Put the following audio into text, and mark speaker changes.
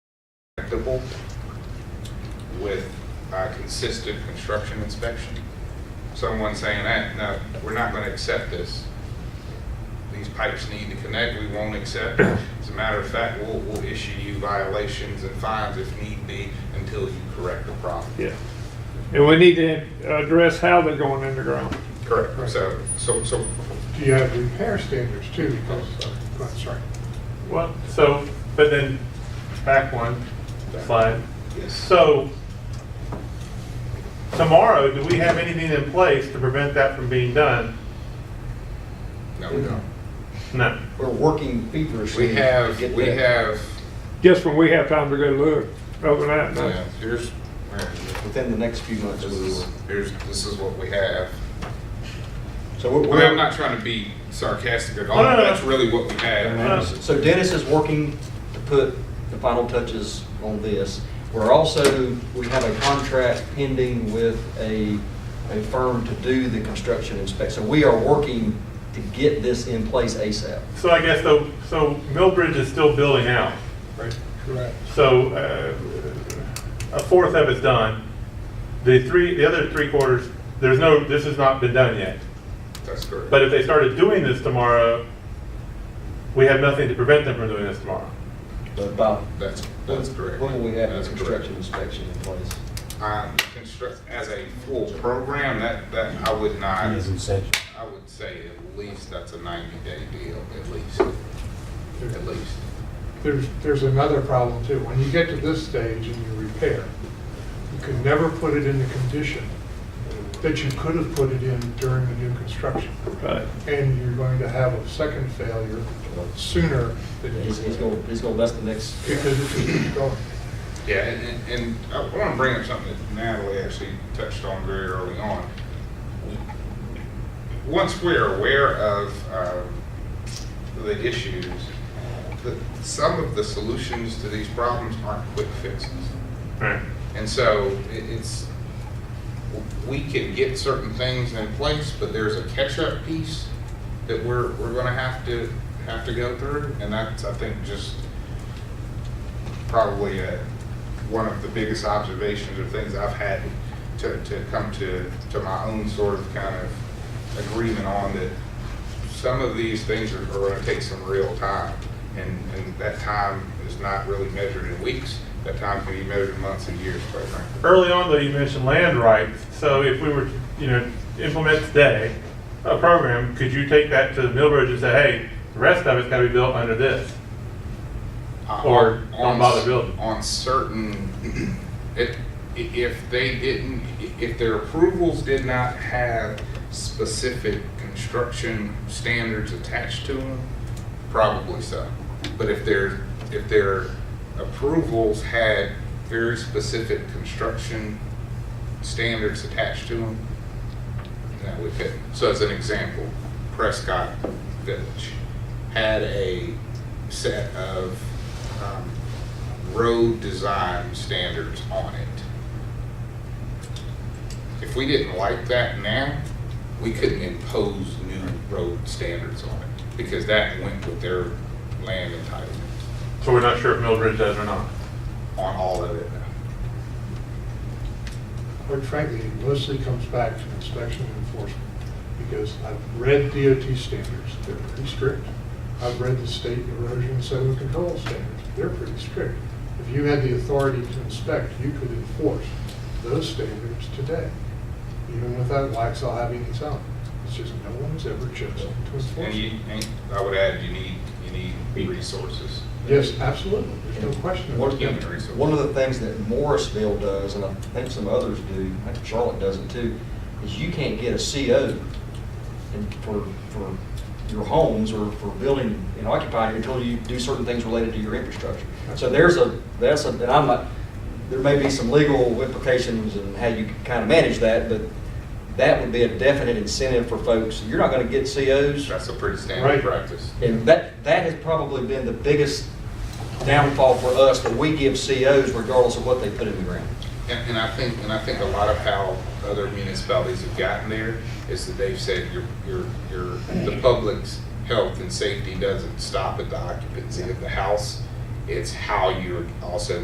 Speaker 1: inspectable with uh, consistent construction inspection. Someone saying, "Eh, no, we're not going to accept this. These pipes need to connect, we won't accept it. As a matter of fact, we'll, we'll issue you violations and fines if need be until you correct the problem.
Speaker 2: Yeah. And we need to address how they're going underground.
Speaker 1: Correct. So, so, so
Speaker 3: Do you have repair standards too? Because, uh, I'm sorry.
Speaker 4: Well, so, but then, back one slide.
Speaker 1: yes,
Speaker 4: So, tomorrow, do we have anything in place to prevent that from being done?
Speaker 1: no, we don't.
Speaker 4: No.
Speaker 5: We're working feverishly.
Speaker 1: We
Speaker 5: to
Speaker 1: have,
Speaker 5: get
Speaker 1: we
Speaker 5: that.
Speaker 1: have,
Speaker 2: Just when we have time to go look overnight.
Speaker 1: you know,
Speaker 2: no.
Speaker 1: here's,
Speaker 5: Within the next few months,
Speaker 1: this
Speaker 5: we
Speaker 1: is,
Speaker 5: will.
Speaker 1: uh, here's, this is what we have.
Speaker 5: So we're.
Speaker 1: Well, I'm not trying to be sarcastic at all.
Speaker 4: No, no, no.
Speaker 1: That's really what we have.
Speaker 4: No.
Speaker 5: So Dennis is working to put the final touches on this. We're also, we have a contract pending with a, a firm to do the construction inspection. So we are working to get this in place ASAP.
Speaker 4: So I guess, though, so Millbridge is still building out.
Speaker 3: Right. Correct.
Speaker 4: So, uh, a fourth of it's done. The three, the other three quarters, there's no, this has not been done yet.
Speaker 1: That's correct.
Speaker 4: But if they started doing this tomorrow, we have nothing to prevent them from doing this tomorrow.
Speaker 5: But about.
Speaker 1: That's, that's correct.
Speaker 5: When will we have the
Speaker 1: That's
Speaker 5: construction
Speaker 1: correct.
Speaker 5: inspection in place?
Speaker 1: Um, construct, as a full program, that, that I would not, I would say at least that's a ninety day deal, at least, at least.
Speaker 3: There's, there's another problem too. When you get to this stage and you repair, you can never put it in the condition that you could have put it in during the new construction.
Speaker 2: Right.
Speaker 3: And you're going to have a second failure sooner than you
Speaker 5: He's,
Speaker 3: because
Speaker 5: he's gonna, he's gonna, that's the next.
Speaker 3: it's going to keep going.
Speaker 1: Yeah, and, and and I want to bring up something that Natalie actually touched on very early on. Once we're aware of um, the issues, the- some of the solutions to these problems aren't quick fixes.
Speaker 4: Right.
Speaker 1: And so it- it's, we can get certain things in place, but there's a catch-up piece that we're, we're gonna have to, have to go through. And that's, I think, just probably uh, one of the biggest observations or things I've had to, to come to, to my own sort of kind of agreement on that some of these things are, are gonna take some real time. And, and that time is not really measured in weeks. That time can be measured in months and years, quite frankly.
Speaker 4: Early on, though, you mentioned land rights. So if we were, you know, implement today a program, could you take that to Millbridge and say, hey, the rest of it's got to be built under this?
Speaker 1: Uh,
Speaker 4: Or
Speaker 1: on-
Speaker 4: don't bother building.
Speaker 1: On certain, if, if they didn't, if their approvals did not have specific construction standards attached to them, probably so. But if their, if their approvals had very specific construction standards attached to them, that we could. So as an example, Prescott Village had a set of um, road design standards on it. If we didn't like that now, we couldn't impose new road standards on it because that went with their land entitlement
Speaker 4: So we're not sure if Millbridge does or not.
Speaker 1: on all of it now.
Speaker 3: Quite frankly, it mostly comes back to inspection and enforcement, because I've read DOT standards, they're pretty strict. I've read the state erosion and sediment control standards, they're pretty strict. If you had the authority to inspect, you could enforce those standards today, even without Waxaw having its own. It's just no one's ever chosen to enforce
Speaker 1: And you,
Speaker 3: it.
Speaker 1: and I would add, you need, you need resources.
Speaker 3: Yes, absolutely, there's no question
Speaker 5: One
Speaker 3: about
Speaker 5: of
Speaker 3: it.
Speaker 1: Human resources.
Speaker 5: the- one of the things that Morrisville does, and I think some others do, I think Charlotte does it too, is you can't get a CO in- for, for your homes or for building and occupying until you do certain things related to your infrastructure. So there's a, that's a, and I'm not, there may be some legal implications and how you kind of manage that, but that would be a definite incentive for folks. You're not going to get COs.
Speaker 1: That's a pretty standard
Speaker 3: Right.
Speaker 1: practice.
Speaker 5: And that, that has probably been the biggest downfall for us, that we give COs regardless of what they put in the ground.
Speaker 1: And, and I think, and I think a lot of how other municipalities have gotten there is that they've said your, your, your, the public's health and safety doesn't stop at the occupancy of the house. It's how you're also